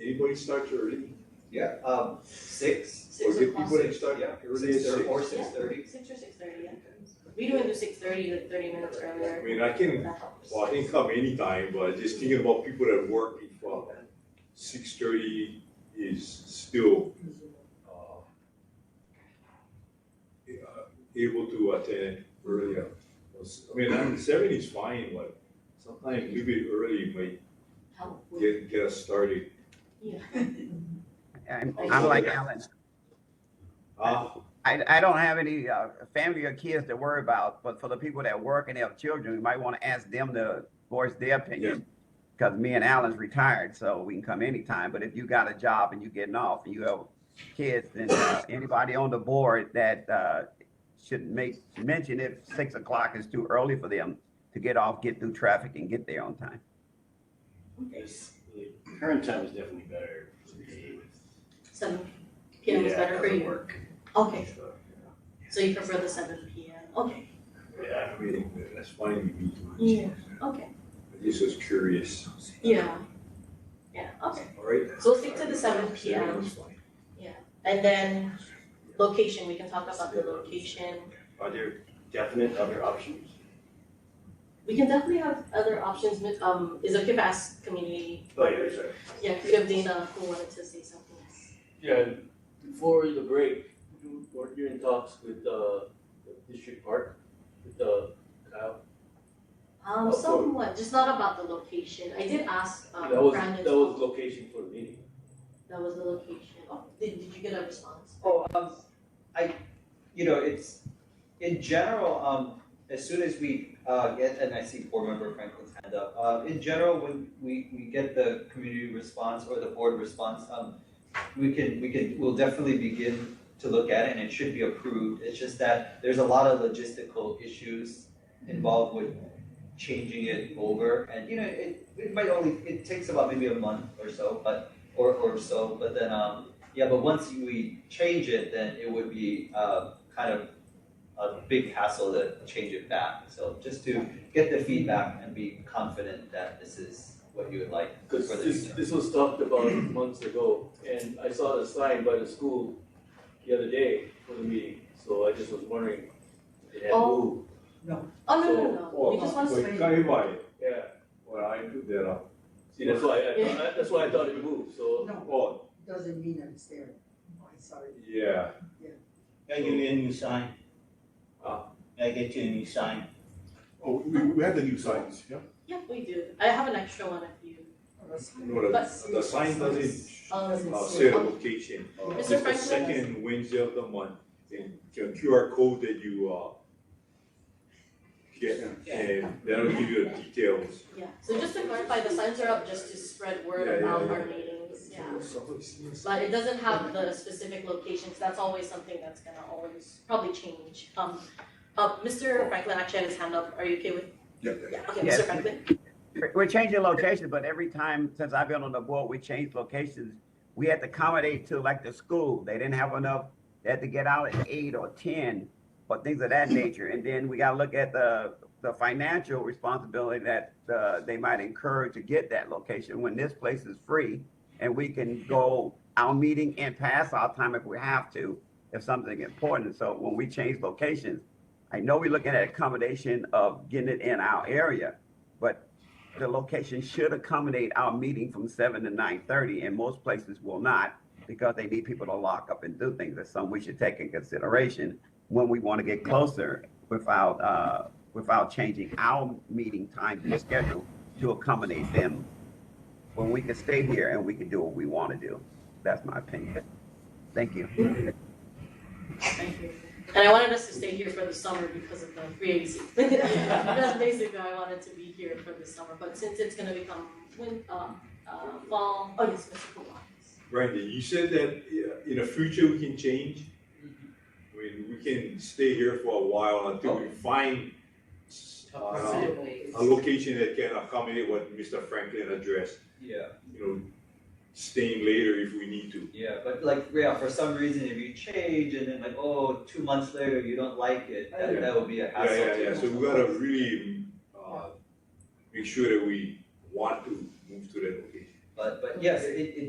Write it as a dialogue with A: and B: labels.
A: Anybody starts early,
B: Yeah, um, six,
A: or
C: Six
A: did
C: o'clock.
A: people that start
B: yeah,
A: early at
B: six thirty
A: six?
B: or six thirty.
C: Six or six thirty, yeah. We do it to six thirty, like thirty minutes
A: I
C: earlier.
A: mean, I can,
C: That helps.
A: well, I can come anytime, but just thinking about people that work from six thirty is still, uh, eh, able to attend earlier. I mean, seven is fine, but sometimes a little bit early might
C: Help with-
A: get, get us started.
C: Yeah.
D: I'm, I'm like Alan.
A: Ah,
D: I, I don't have any uh, family or kids to worry about, but for the people that work and have children, you might want to ask them to voice their opinion. Because me and Alan's retired, so we can come anytime. But if you got a job and you getting off and you have kids, then uh, anybody on the board that uh, should make mention if six o'clock is too early for them to get off, get through traffic, and get there on time.
E: It's- the Current time is definitely better for me.
C: Seven P M is
E: Yeah,
C: better for
E: it
C: you.
E: work.
C: Okay,
E: So,
C: so you prefer the seven P M, okay,
E: Yeah,
A: I mean, that's fine with me too.
C: Yeah. okay,
A: I just was curious.
C: yeah. Yeah, okay,
A: All right.
C: so we'll stick to the seven P M,
A: That's fine.
C: and then location, we can talk about the location.
E: are there definite other options?
C: We can definitely have other options, but, um, is it okay if I ask community?
E: Oh, yeah, sorry.
C: Yeah, 'cause we have Dana who wanted to say something.
F: Yeah, before the break, you were you in talks with uh, the district park, with uh, Kyle?
C: Um,
F: Of course.
C: somewhat, just not about the location, I did ask, um,
F: That was,
C: Brandon's.
F: that was location for the meeting.
C: That was the location. Oh, did, did you get a response?
B: Oh, um, I, you know, it's, in general, um, as soon as we, uh, get, and I see board member Franklin's hand up, uh, in general, when we, we get the community response or the board response, um, we can, we can, we'll definitely begin to look at it and it should be approved, it's just that there's a lot of logistical issues involved with changing it over, and, you know, it, it might only, it takes about maybe a month or so, but, or, or so, but then, um, yeah, but once we change it, then it would be uh, kind of a big hassle to change it back. So just to get the feedback and be confident that this is what you would like for
F: Because
B: the
F: this,
B: future.
F: this was talked about months ago, and I saw the sign by the school the other day for the meeting, so I just was wondering if it had
C: Oh.
F: moved.
C: Oh, no,
F: So-
C: no, no, we just want to.
A: Well, Kai Wai,
F: Yeah,
A: well, I put that up.
F: see, that's why, I- I- that's why I thought it moved, so,
G: No,
A: Oh,
G: doesn't mean I'm there. Oh, I'm sorry.
A: yeah,
H: I give you a new sign.
F: Ah.
H: I get you a new sign.
I: Oh, we, we have the new signs, yeah?
C: Yeah, we do. I have an extra one if you.
A: no, the,
C: But-
A: the sign doesn't
C: Um,
A: uh, say the location.
C: Mr.
A: It's the
C: Franklin?
A: second Wednesday of the month, and the QR code that you, uh, get, and that'll give you the details.
C: yeah, so just to clarify, the signs are up just to spread
A: Yeah, yeah,
C: word about
A: yeah.
C: our meetings, yeah.
A: Somebody's-
C: But it doesn't have the specific locations, that's always something that's gonna always probably change. Um, uh, Mr. Franklin actually had his hand up, are you okay with?
I: Yeah.
C: Yeah, okay,
D: Yes.
C: Mr. Franklin,
D: We're changing locations, but every time since I've been on the board, we changed locations. We had to accommodate to like the school. They didn't have enough. They had to get out at eight or ten or things of that nature. And then we gotta look at the, the financial responsibility that, uh, they might incur to get that location when this place is free. And we can go our meeting and pass our time if we have to, if something important. So when we change locations, I know we're looking at accommodation of getting it in our area, but the location should accommodate our meeting from seven to nine thirty, and most places will not because they need people to lock up and do things. That's something we should take in consideration when we want to get closer without, uh, without changing our meeting time and schedule to accommodate them. When we can stay here and we can do what we want to do. That's my opinion. Thank you.
C: thank you. And I wanted us to stay here for the summer because of the free agency. That's basically why I wanted to be here for the summer, but since it's gonna become win, uh, uh, fall, oh yes, Mr. Kowalski.
A: Brandon, you said that uh, in the future we can change?
C: Mm-hmm.
A: I mean, we can stay here for a while until
C: Oh.
A: we find uh, a location that can accommodate what Mr. Franklin addressed,
B: Yeah,
A: you know, staying later if we need to.
B: yeah, but like, yeah, for some reason, if you change and then like, oh, two months later, you don't like it, that, that would be a
A: Yeah,
B: hassle.
A: yeah,
B: to-
A: yeah, so we gotta really, uh, make sure that we want to move to that location.
B: But, but yes, it, it